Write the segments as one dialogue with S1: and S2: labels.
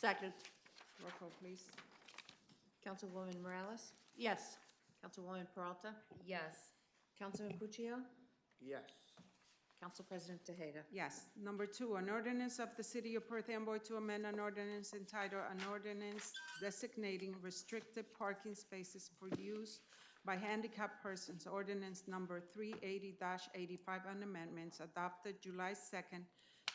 S1: Second,
S2: Roll call, please. Councilwoman Morales?
S1: yes.
S2: Councilwoman Peralta?
S3: Yes.
S2: Councilman Puccio?
S4: Yes.
S2: Council President Tejeda?
S5: Yes. Number two, an ordinance of the City of Perth Amboy to amend an ordinance entitled, an ordinance designating restricted parking spaces for use by handicapped persons, ordinance number 380-85, and amendments adopted July 2nd,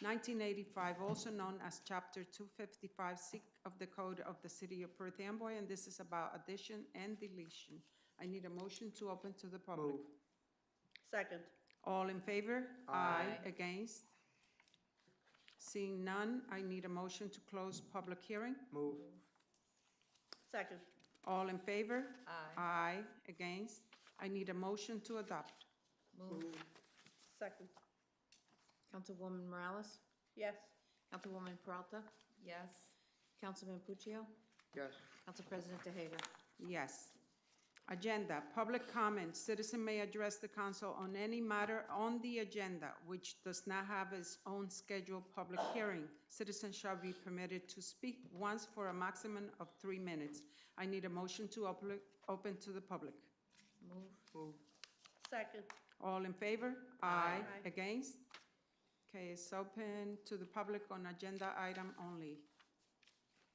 S5: 1985, also known as Chapter 255, Sec of the Code of the City of Perth Amboy, and this is about addition and deletion. I need a motion to open to the public.
S4: Move.
S1: Second,
S5: All in favor? Aye. Against? Seeing none, I need a motion to close public hearing.
S4: Move.
S1: second,
S5: All in favor?
S3: Aye.
S5: Aye. Against? I need a motion to adopt.
S3: Move.
S1: second,
S2: Councilwoman Morales?
S1: yes.
S2: Councilwoman Peralta?
S3: Yes.
S2: Councilman Puccio?
S4: Yes.
S2: Council President Tejeda?
S5: Yes. Agenda, public comment, citizen may address the council on any matter on the agenda which does not have its own scheduled public hearing. Citizen shall be permitted to speak once for a maximum of three minutes. I need a motion to open, open to the public.
S3: Move.
S4: Move.
S1: Second,
S5: All in favor? Aye. Against? Okay, it's open to the public on agenda item only.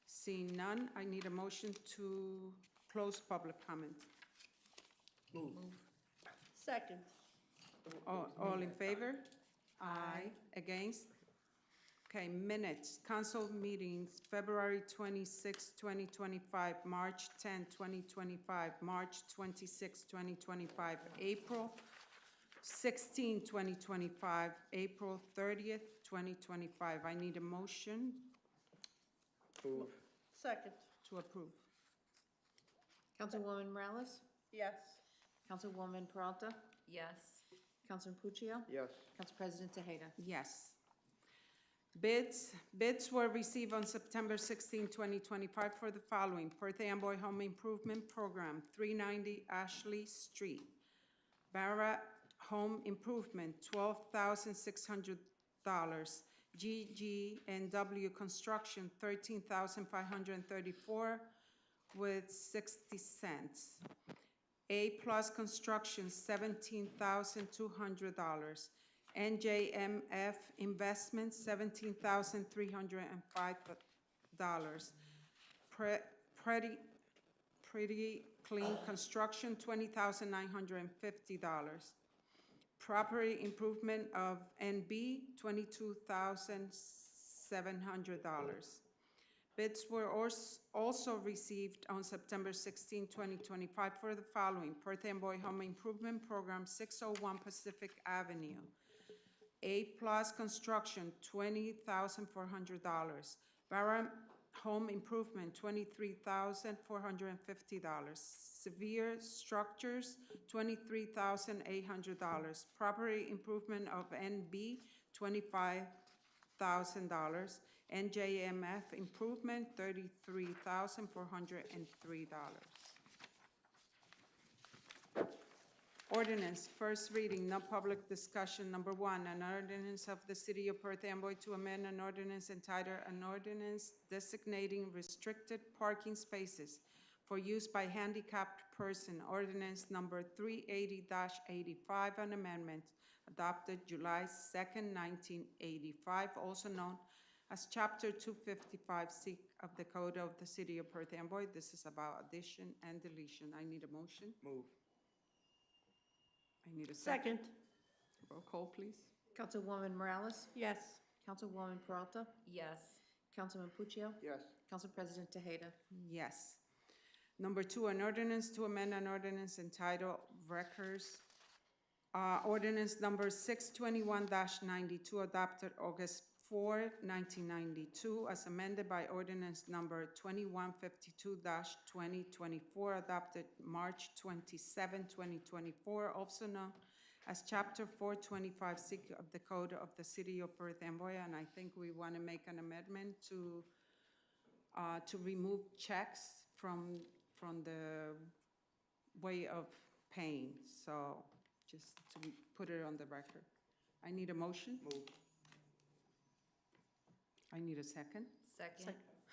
S5: Seeing none, I need a motion to close public comment.
S1: second,
S5: All all in favor? Aye. Against? Okay, minutes, council meetings, February 26, 2025, March 10, 2025, March 26, 2025, April 16, 2025, April thirtieth, twenty 2025. I need a motion
S4: Move.
S1: second,
S5: to approve.
S2: Councilwoman Morales?
S1: yes.
S2: Councilwoman Peralta?
S3: Yes.
S2: Councilman Puccio?
S4: Yes.
S2: Council President Tejeda?
S5: Yes. Bids, bids were received on September 16, 2025 for the following: Perth Amboy Home Improvement Program, 390 Ashley Street. Barra Home Improvement, $12,600. GG&W Construction, $13,534 with 60 cents. A Plus Construction, $17,200. NJMF Investment, $17,305. Pre- Pretty, Pretty Clean Construction, $20,950. Property Improvement of NB, $22,700. Bids were als- also received on September 16, 2025 for the following: Perth Amboy Home Improvement Program, 601 Pacific Avenue. A Plus Construction, $20,400. Barham Home Improvement, $23,450. Severe Structures, $23,800. Property Improvement of NB, $25,000. NJMF Improvement, $33,403. Ordinance, first reading, no public discussion. Number one, an ordinance of the City of Perth Amboy to amend an ordinance entitled, an ordinance designating restricted parking spaces for use by handicapped person, ordinance number 380-85, an amendment adopted July 2nd, 1985, also known as Chapter 255C of the Code of the City of Perth Amboy. This is about addition and deletion. I need a motion.
S4: Move.
S5: I need a second.
S1: Second,
S5: Roll call, please.
S2: Councilwoman Morales?
S1: yes.
S2: Councilwoman Peralta?
S3: Yes.
S2: Councilman Puccio?
S4: Yes.
S2: Council President Tejeda?
S5: Yes. Number two, an ordinance to amend an ordinance entitled Records, uh, ordinance number six twenty-one ninety-two adopted August 4, 1992, as amended by ordinance number twenty-one fifty-two twenty twenty-four adopted March 27, 2024, also known as chapter four twenty-five six of the Code of the City of Perth Amboy, and I think we want to make an amendment to uh, to remove checks from, from the way of paying. So just to put it on the record. I need a motion.
S4: Move.
S5: I need a second.
S3: Second.